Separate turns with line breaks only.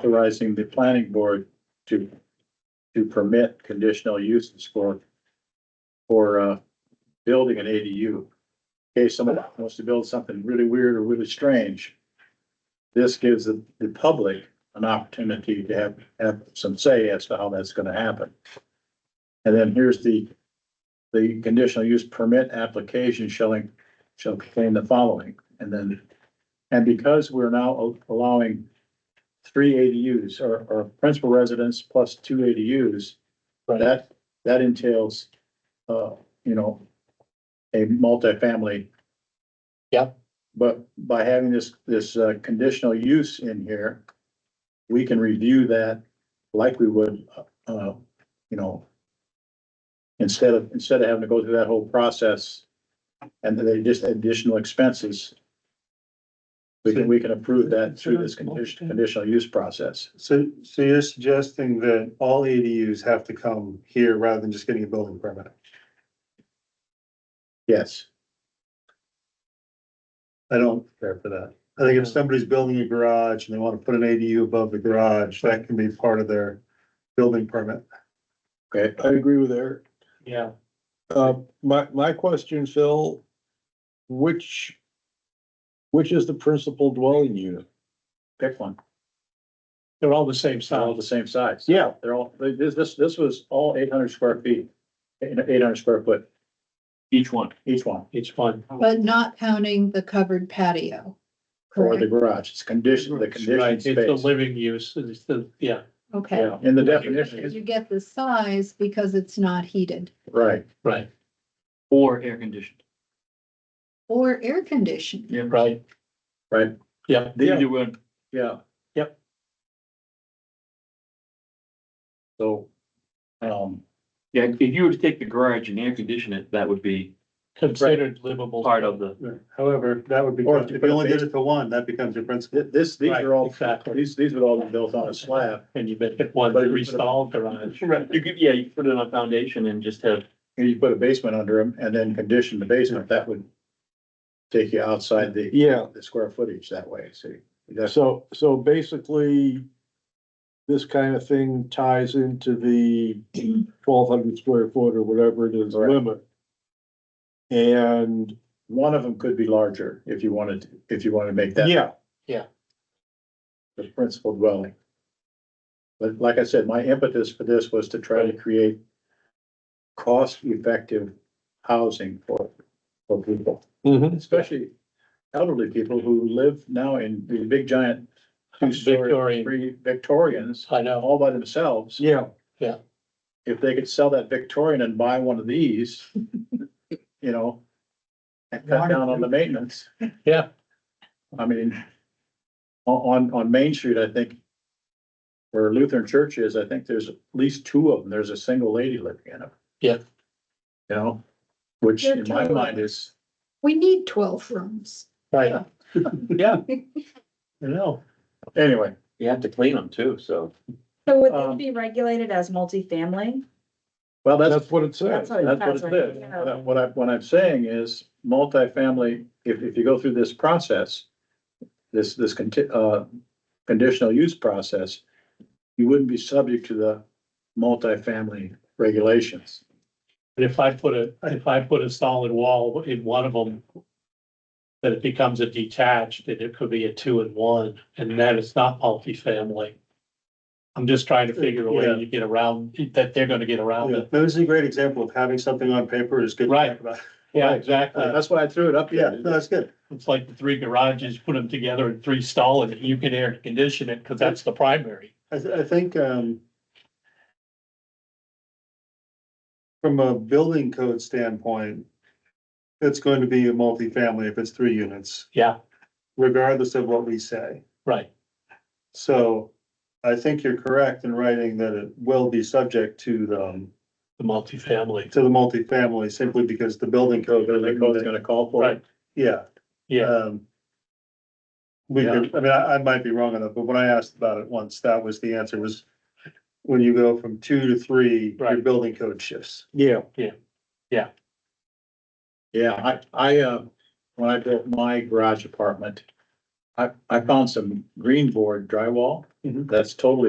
authorizing the planning board to, to permit conditional uses for, for, uh, building an ADU. In case someone wants to build something really weird or really strange, this gives the, the public an opportunity to have, have some say as to how that's gonna happen. And then here's the, the conditional use permit application shall, in- shall contain the following, and then, and because we're now allowing three ADUs or, or principal residence plus two ADUs, that, that entails, uh, you know, a multifamily.
Yep.
But by having this, this, uh, conditional use in here, we can review that like we would, uh, you know, instead of, instead of having to go through that whole process and then they just additional expenses. We can, we can approve that through this condition, conditional use process.
So, so you're suggesting that all ADUs have to come here rather than just getting a building permit?
Yes,
I don't care for that. I think if somebody's building a garage and they want to put an ADU above the garage, that can be part of their building permit.
okay.
I agree with Eric.
Yeah,
Uh, my, my question, Phil, which, which is the principal dwelling unit?
Pick one.
they're all the same
They're all
size.
the same size.
Yeah.
They're all, this, this, this was all eight hundred square feet, eight hundred square foot,
Each one.
each one,
Each one.
But not counting the covered patio.
for the
correct?
garage. It's condition, the
Right,
condition
it's the
space.
living use, it's the, yeah,
Okay.
In the
But
definition,
You get the size because it's not heated
right.
right,
Or air conditioned.
or air conditioned.
Yeah.
right,
Right,
yeah.
Either one.
yeah.
Yep.
So, um,
Yeah, if you were to take the garage and air condition it, that would be
Considered livable.
part of the,
However, that would be,
Or if you
if
put
you
a
only did
base-
it to one, that becomes your principal.
thi- this, these
Right,
are all,
Exactly,
these, these would all be built on a slab.
and you make it one
But you put a-
restyled garage.
you could, yeah, you could put it on a foundation and just have,
And you put a basement under them and then condition the basement, that would take you outside the,
Yeah,
the square footage that way, see? That's,
so, so basically, this kind of thing ties into the twelve hundred square foot or whatever it is
Correct.
limit. And,
one of them could be larger if you wanted, to- if you wanted to make that.
yeah,
the principal dwelling. But like I said, my impetus for this was to try to create cost-effective housing for, for people,
mhm,
especially elderly people who live now in these big giant two-story,
Victorian,
three Victorians,
I know,
all by themselves.
yeah,
If they could sell that Victorian and buy one of these, you know, and cut down on the maintenance.
yeah,
I mean, o- on, on Main Street, I think where Lutheran Church is, I think there's at least two of them. There's a single lady living in them.
Yeah.
You know, which
They're
in my
totally-
mind is,
We need twelve rooms.
right, yeah. I know,
anyway,
you have to clean them too, so.
So would
Um,
this be regulated as multifamily?
well, that's,
that's what it says.
That's what
that's what it is. What I- What I, what I'm saying is multifamily, if, if you go through this process, this, this conti- uh, conditional use process, you wouldn't be subject to the multifamily regulations.
but if I put a, if I put a solid wall in one of them. Then it becomes a detached, and it could be a two and one, and then it's not multifamily. I'm just trying to figure a way
Yeah.
to get around, that they're gonna get around
Yeah,
it,
That Um, was a great example of having something on paper is good. to
Right.
talk about.
yeah, exactly.
That's why I threw it up
Uh, Yeah,
here.
no, that's good.
It's like the three garages, put them together in three stall and you can air condition it because that's the primary.
I, th- I think, um, from a building code standpoint, it's going to be a multifamily if it's three units,
Yeah,
regardless of what we say.
right.
So I think you're correct in writing that it will be subject to the, um,
The multifamily.
to the multifamily simply because the building code.
Building code's gonna call for it.
Yeah.
Yeah,
um, We could, I mean, I, I might be wrong on that, but when I asked about it once, that was the answer was when you go from two to three, your
Right.
building code shifts.
Yeah,
Yeah, I, I, uh, when I built my garage apartment, I, I found some green board drywall.
Mhm. Mm-hmm.
That's totally